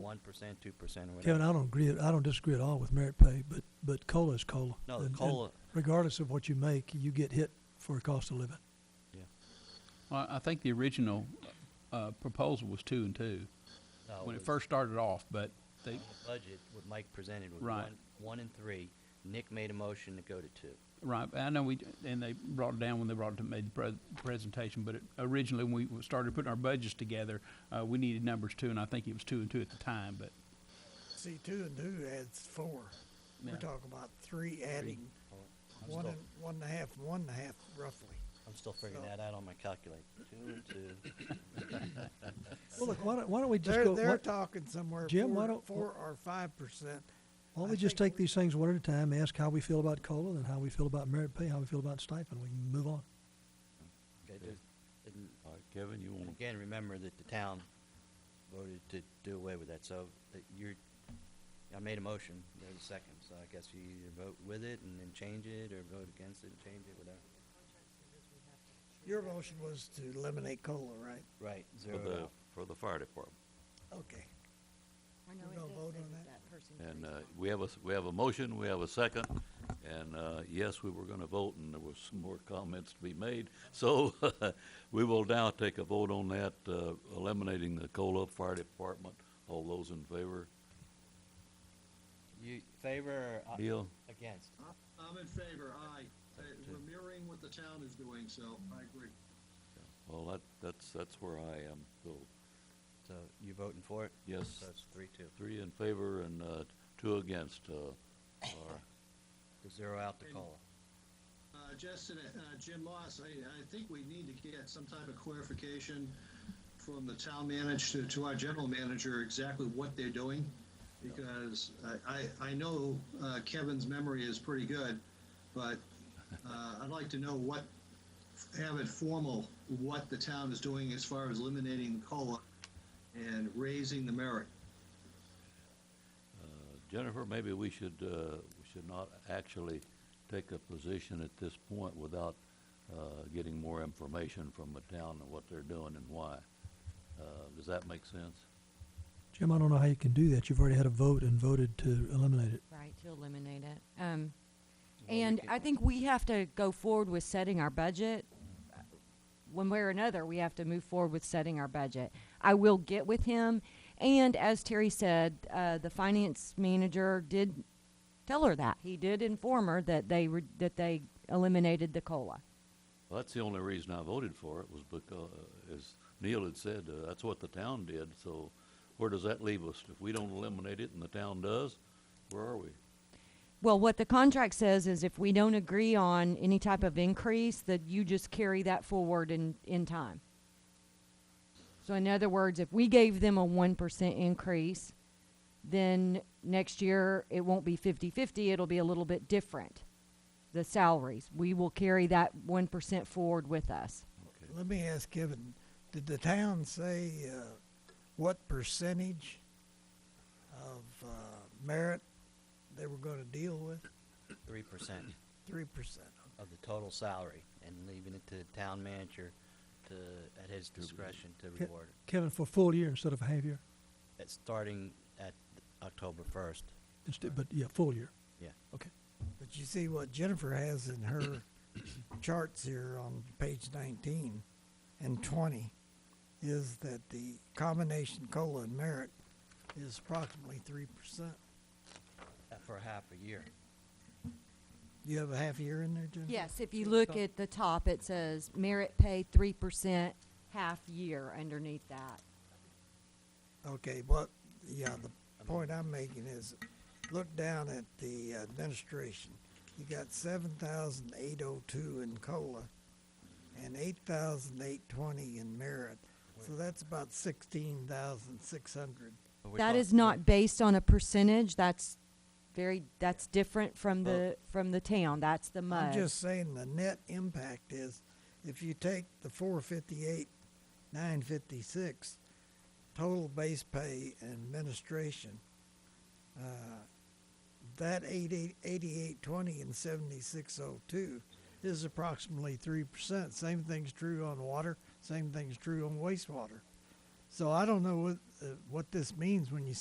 one percent, two percent, or Kevin, whatever. I don't agree, I don't disagree at all with merit pay, but, but COLA is COLA. No, the And- and COLA, Regardless of what you make, you get hit for a cost of living. Well, I think the original uh, proposal was two and two, no, when it was- first started off, but they, the budget, what Mike presented was Right. one, one and three. Nick made a motion to go to two. right, I know we, and they brought it down when they brought it to made the pre- presentation, but it- originally, when we started putting our budgets together, uh, we needed numbers two, and I think it was two and two at the time, but, See, two and two adds four. We're Yeah. talking about three adding I'm one still, and, one and a half, one and a half roughly. I'm still figuring so- that out on my calculator. Two and two. Well, look, why don't, why don't we just They're, go, they're why talking somewhere Jim, why four, don't- four or five percent. why don't I we just think take these things one at a time, ask how we feel about COLA, then how we feel about merit pay, how we feel about stipend, we can move on. Okay, Okay. just- and All right, Uh, Kevin, you want to? Again, remember that the town voted to do away with that, so that you're, I made a motion, there's a second, so I guess you either vote with it and then change it, or vote against it and change it, whatever. Your motion was to eliminate COLA, right? Right, For zero it the, out. for the fire department. Okay. I know We're it gonna does vote say on that that? that person And agrees uh, on it. we have a, s- we have a motion, we have a second, and uh, yes, we were going to vote, and there was some more comments to be made. So we will now take a vote on that, uh, eliminating the COLA Fire Department. All those in favor? You favor or uh, Bill? against? I'm in favor, aye. Uh, We're mirroring what the town is doing, so I agree. Well, that, that's, that's where I am. So So you voting for it? Yes. So it's three, two. three in favor and uh, two against. uh, are- To zero out the COLA. Uh, Justin, uh, Jim Moss, I, I think we need to get some type of clarification from the town manager to, to our general manager exactly what they're doing. Because I, I, I know uh, Kevin's memory is pretty good, but, uh, I'd like to know what, have it formal, what the town is doing as far as eliminating COLA and raising the merit. Uh, Jennifer, maybe we should, uh, we should not actually take a position at this point without uh, getting more information from the town and what they're doing and why. Uh, Does that make sense? Jim, I don't know how you can do that, you've already had a vote and voted to eliminate it. Right, to eliminate it. Um, and I think we have to go forward with setting our budget. Uh, One way or another, we have to move forward with setting our budget. I will get with him. And as Terry said, uh, the finance manager did tell her that. He did inform her that they, re- that they eliminated the COLA. Well, that's the only reason I voted for it was because, uh, as Neil had said, uh, that's what the town did, so where does that leave us? If we don't eliminate it and the town does, where are we? Well, what the contract says is if we don't agree on any type of increase, that you just carry that forward in, in time. So in other words, if we gave them a one percent increase, then next year it won't be 50-50, it'll be a little bit different. The salaries, we will carry that one percent forward with us. Okay. Let me ask Kevin, did the town say, uh, what percentage of, uh, merit they were gonna deal with? Three percent Three percent. of the total salary, and leaving it to the town manager to, at his discretion to Ke- reward it. Kevin, for a full year instead of a half year, That's starting at October first, instead, but yeah, full year, yeah. okay. But you see what Jennifer has in her charts here on page nineteen and twenty is that the combination COLA and merit is approximately three percent. Uh, For half a year. You have a half year in there, Jennifer? Yes, if you look at the top, it says merit pay three percent half year underneath that. Okay, but, yeah, the point I'm making is, look down at the administration. You got seven thousand eight oh two in COLA and eight thousand eight twenty in merit. So that's about sixteen thousand six hundred. But we're That talk- is not based on a percentage, that's very, that's different from the, from the town, that's the I'm MUD. just saying the net impact is, if you take the four fifty-eight, nine fifty-six, total base pay and administration, uh, that eight eight, eighty-eight twenty and seventy-six oh two is approximately three percent. Same thing's true on water, same thing's true on wastewater. So I don't know what, uh, what this means when you